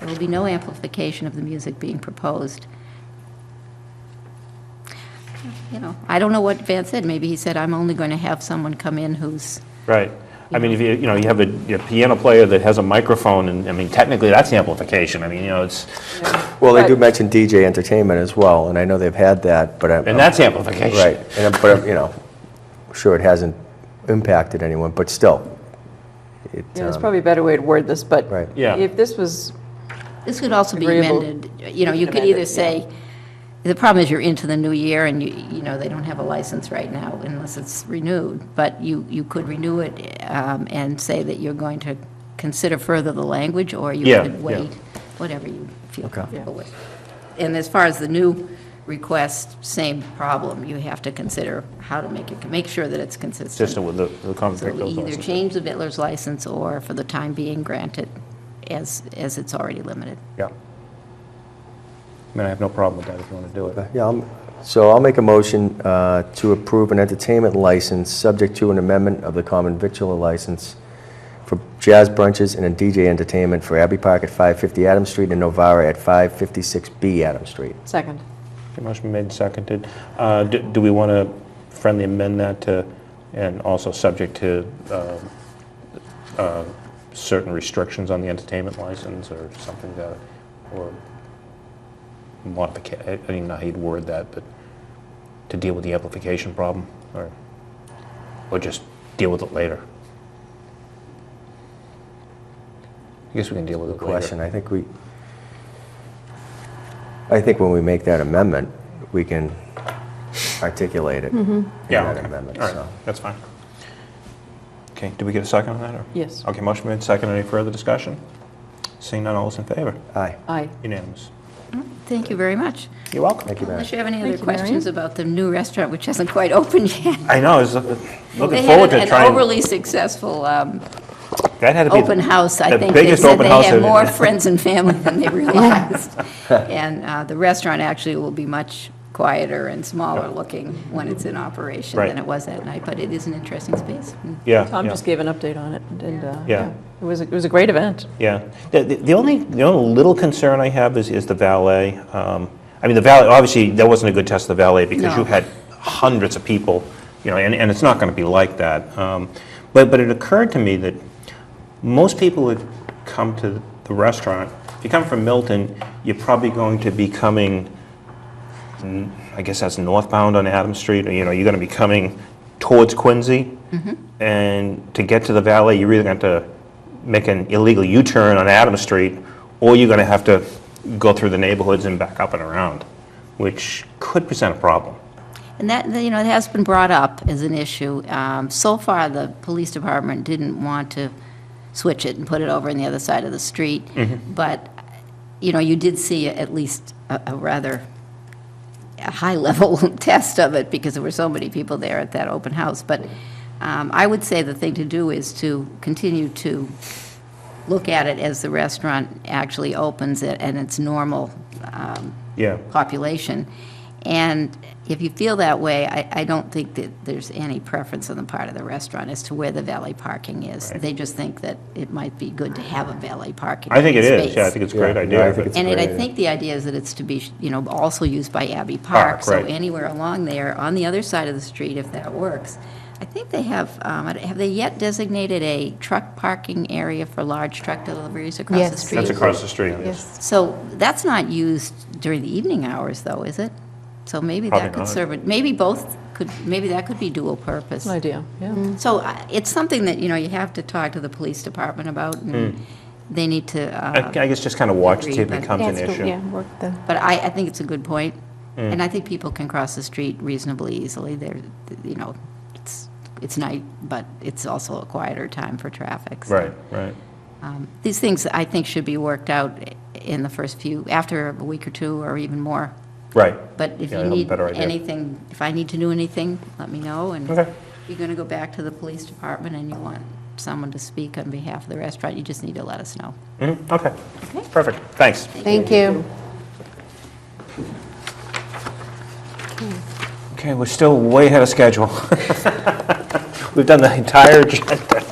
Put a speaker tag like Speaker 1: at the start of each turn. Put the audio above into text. Speaker 1: There will be no amplification of the music being proposed. You know, I don't know what Van said. Maybe he said, I'm only going to have someone come in who's,
Speaker 2: Right. I mean, if you, you know, you have a you know, piano player that has a microphone, and, I mean, technically, that's amplification. I mean, you know, it's,
Speaker 3: Well, they do
Speaker 4: But-
Speaker 3: mention DJ entertainment as well, and I know they've had that, but I'm...
Speaker 2: and that's amplification.
Speaker 3: Right, and, I'm- but, I'm, you know, sure, it hasn't impacted anyone, but still, it,
Speaker 4: Yeah, There's
Speaker 3: um,
Speaker 4: probably a better way to word this, but
Speaker 3: Right.
Speaker 2: Yeah.
Speaker 4: if this was,
Speaker 1: this could also be
Speaker 4: Agreeable.
Speaker 1: amended. You know, you
Speaker 4: can
Speaker 1: could
Speaker 4: amend
Speaker 1: either
Speaker 4: it,
Speaker 1: say, the problem is you're into the new year and you, you know, they don't have a license right now unless it's renewed. But you, you could renew it um, and say that you're going to consider further the language or you
Speaker 2: Yeah,
Speaker 1: could
Speaker 2: yeah.
Speaker 1: wait, whatever you feel
Speaker 3: Okay.
Speaker 1: comfortable with. And as far as the new request, same problem. You have to consider how to make it, make sure that it's consistent.
Speaker 2: Consistent with the, the
Speaker 1: So
Speaker 2: conversation.
Speaker 1: we either change the Vittler's license or for the time being grant it as, as it's already limited.
Speaker 3: yeah.
Speaker 2: I mean, I have no problem with that if you want to do it.
Speaker 3: But, Yeah, I'm- so I'll make a motion uh, to approve an entertainment license subject to an amendment of the common victular license for jazz brunches and a DJ entertainment for Abbey Park at 550 Adams Street and Novara at 556B Adams Street.
Speaker 4: second,
Speaker 2: Okay, Motion made and seconded. Uh, do, do we want to friendly amend that to, and also subject to uh, uh, certain restrictions on the entertainment license or something that, or modification, I don't even know how you'd word that, but to deal with the amplification problem, or, or just deal with it later? I guess we can deal with it later.
Speaker 3: Question, I think we, I think when we make that amendment, we can articulate it
Speaker 2: Mm-hmm.
Speaker 3: in
Speaker 2: Yeah,
Speaker 3: that
Speaker 2: okay.
Speaker 3: amendment,
Speaker 2: All
Speaker 3: so.
Speaker 2: right, that's fine. Okay, did we get a second on that, or?
Speaker 4: yes,
Speaker 2: Okay, motion made, second, any further discussion? Seeing none, all is in favor?
Speaker 3: Aye,
Speaker 4: aye.
Speaker 2: Unanimous.
Speaker 1: Thank you very much.
Speaker 2: You're welcome.
Speaker 3: thank you, Madam.
Speaker 1: Unless you have any
Speaker 4: Thank
Speaker 1: other
Speaker 4: you, Marion.
Speaker 1: questions about the new restaurant, which hasn't quite opened yet.
Speaker 2: I know, I was looking
Speaker 1: They
Speaker 2: looking forward
Speaker 1: had
Speaker 2: to
Speaker 1: an
Speaker 2: trying.
Speaker 1: overly successful um,
Speaker 2: That had to be
Speaker 1: open house. I
Speaker 2: the
Speaker 1: think they
Speaker 2: biggest
Speaker 1: said
Speaker 2: open
Speaker 1: they
Speaker 2: house
Speaker 1: had
Speaker 2: in-
Speaker 1: more friends and family than they realized. And uh, the restaurant actually will be much quieter and smaller looking when it's in operation
Speaker 2: Right.
Speaker 1: than it was that night, but it is an interesting space. Mm.
Speaker 2: Yeah,
Speaker 4: Tom
Speaker 2: yeah.
Speaker 4: just gave an update on it, and, uh,
Speaker 2: Yeah.
Speaker 4: yeah, it was, a- it was a great event.
Speaker 2: Yeah. The, the, the only the only little concern I have is, is the valet. Um, I mean, the valet, obviously, that wasn't a good test of the valet because
Speaker 1: No.
Speaker 2: you had hundreds of people, you know, and, and it's not going to be like that. Um, but, but it occurred to me that most people that come to the restaurant, if you come from Milton, you're probably going to be coming, n- I guess that's northbound on Adams Street, or, you know, you're going to be coming towards Quincy. And to get to the valet, you're either going to have to make an illegal U-turn on Adams Street, or you're going to have to go through the neighborhoods and back up and around, which could present a problem.
Speaker 1: And that, you know, it has been brought up as an issue. Um, So far, the police department didn't want to switch it and put it over on the other side of the street. But, you know, you did see at least a a rather high-level test of it because there were so many people there at that open house. But um, I would say the thing to do is to continue to look at it as the restaurant actually opens it and its normal um,
Speaker 2: Yeah.
Speaker 1: population. And if you feel that way, I, I don't think that there's any preference on the part of the restaurant as to where the valet parking is. They just think that it might be good to have a valet parking
Speaker 2: I think it is,
Speaker 1: space.
Speaker 2: yeah, I think it's a great
Speaker 3: Yeah,
Speaker 2: idea.
Speaker 3: yeah, I think
Speaker 2: but-
Speaker 3: it's
Speaker 1: And it- I
Speaker 3: great idea.
Speaker 1: think the idea is that it's to be, you know, also used by Abbey
Speaker 2: Park,
Speaker 1: Park. So
Speaker 2: right.
Speaker 1: anywhere along there, on the other side of the street, if that works. I think they have, um, have they yet designated a truck parking area for large truck deliveries across the
Speaker 5: Yes.
Speaker 1: street?
Speaker 2: That's across the street.
Speaker 5: Yes.
Speaker 1: So that's not used during the evening hours, though, is it? So maybe that
Speaker 2: Probably
Speaker 1: could
Speaker 2: not.
Speaker 1: serve, it. maybe both could, maybe that could be dual purpose.
Speaker 4: An idea, yeah.
Speaker 1: So I- it's something that, you know, you have to talk to the police department about, and they need to,
Speaker 2: Hmm. I
Speaker 1: uh,
Speaker 2: I guess just kind of watch,
Speaker 1: Agreed,
Speaker 2: see if
Speaker 1: but-
Speaker 2: it becomes an
Speaker 5: Yeah, it's good,
Speaker 2: issue.
Speaker 5: Yeah, work the,
Speaker 1: but I, I think it's a good point,
Speaker 2: Hmm.
Speaker 1: and I think people can cross the street reasonably easily. They're, you know, it's, it's night, but it's also a quieter time for traffic. so.
Speaker 2: Right, right.
Speaker 1: Um, These things, I think, should be worked out in the first few, after a week or two, or even more.
Speaker 2: Right.
Speaker 1: But if
Speaker 2: Yeah, I
Speaker 1: you
Speaker 2: have a
Speaker 1: need
Speaker 2: better idea.
Speaker 1: anything, if I need to do anything, let me know, and
Speaker 2: Okay.
Speaker 1: you're going to go back to the police department and you want someone to speak on behalf of the restaurant, you just need to let us know.
Speaker 2: Mhm, Okay, perfect, thanks.
Speaker 5: thank you.
Speaker 2: Okay, we're still way ahead of schedule. We've done the entire agenda.